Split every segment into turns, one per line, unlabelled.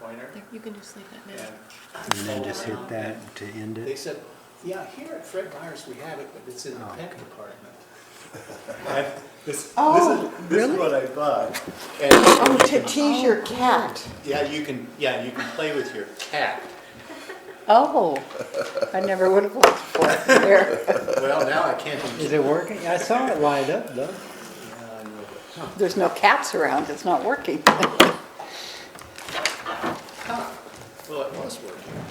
pointer.
There, You can just leave that
And
now.
And then just hit that to end
They
it?
said, yeah, here at Fred Meyer's we have it, but it's in the
Oh,
pet
okay.
department. I- This,
Oh,
this is, this
really?
is what I bought. And,
Oh, to tease your cat.
yeah, you can, yeah, you can play with your cat.
Oh, I never would have looked for it there.
Well, now I can't. even-
Is it working? I saw it light up though.
Yeah, I know, but-
There's no cats around, it's not working.
Well, it was working.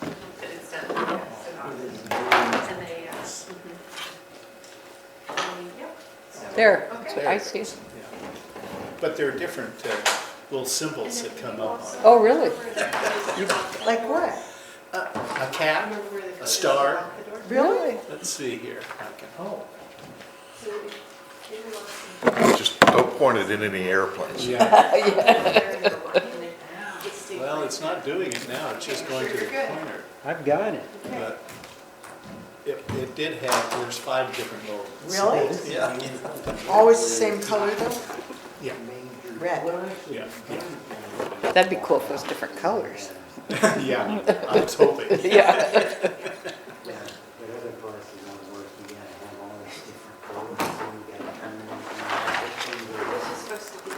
But it's done, yes, so not- and they, uh, mhm. Yep, so-
There,
Okay.
I see.
Yeah. But there are different uh, little symbols that come up on it.
Oh, really?
Like what?
A cat, a star.
Really?
Let's see here. I can- Oh.
Just don't point it in any airplanes.
Yeah. Well,
Well,
it's not doing it now, it's just going to the pointer.
I've got it.
But it, it did have, there's five different little.
Really?
symbols. Yeah,
Always the same color though?
yeah,
Red.
yeah,
That'd be cool if it was different colors.
yeah. Yeah, I was hoping.
Yeah.
But other places don't work, you gotta have all these different colors, and you gotta turn them
This
on.
is supposed to be,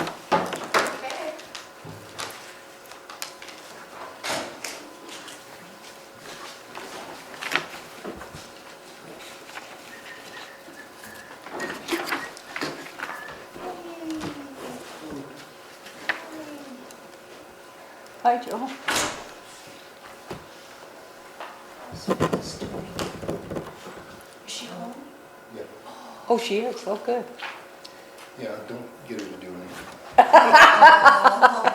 okay.
Hi, Joel.
Is she home?
Yeah,
Oh, she is, oh, good.
yeah, don't get her to do anything.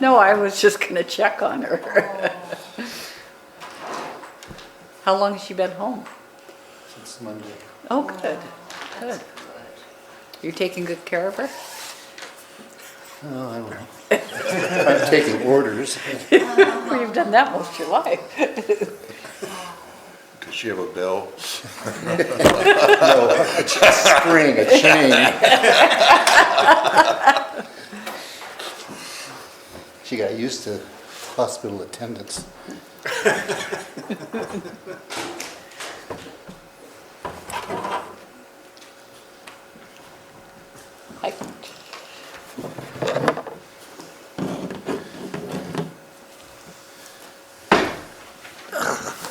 No, I was just gonna check on her. How long has she been home?
It's Monday.
Oh, good, good. You're taking good care of her?
Oh, I don't know.
I'm taking orders.
Well, you've done that most of your life.
Does she have a bell?
Spring, a chain.
She got used to hospital attendants.
I-
Just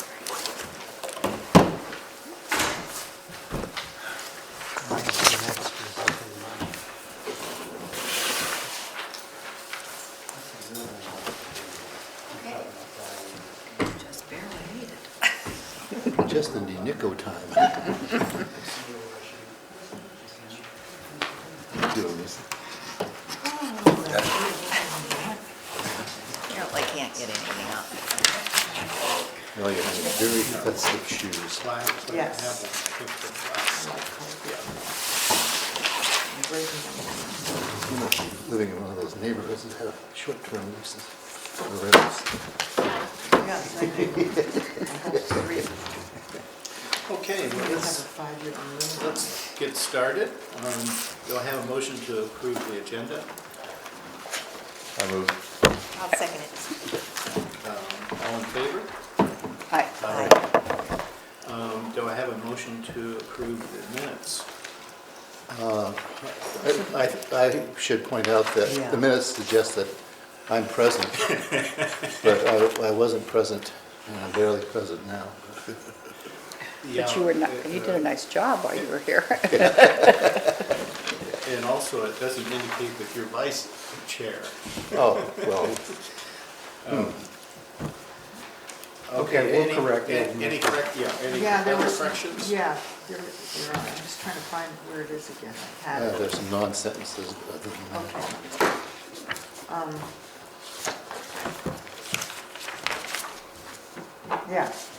barely made it.
Just in the nick of time. Doing this.
Apparently can't get anything up.
Oh, yeah, very expensive shoes. You know, Living in one of those neighborhoods that have short-term leases for rentals.
Okay, well, let's, let's get started. Um, Do I have a motion to approve the agenda?
I move.
I'll second it.
Um, All in favor?
I-
Um, Do I have a motion to approve the minutes?
I, I should point out that the minutes suggest that I'm present, but I, I wasn't present, and I'm barely present now.
But you were, ni- you did a nice job while you were here.
uh, And also, it doesn't indicate that you're vice chair.
Oh, well, Okay, we'll
any-
correct it.
an- Any correct, yeah, any
Yeah, there
other
was,
corrections?
yeah, there, there are, I'm just trying to find where it is again.
Uh,
I had
yeah,
it.
uh, there's some non-sentences, but other than that.
Okay. Um, Yeah,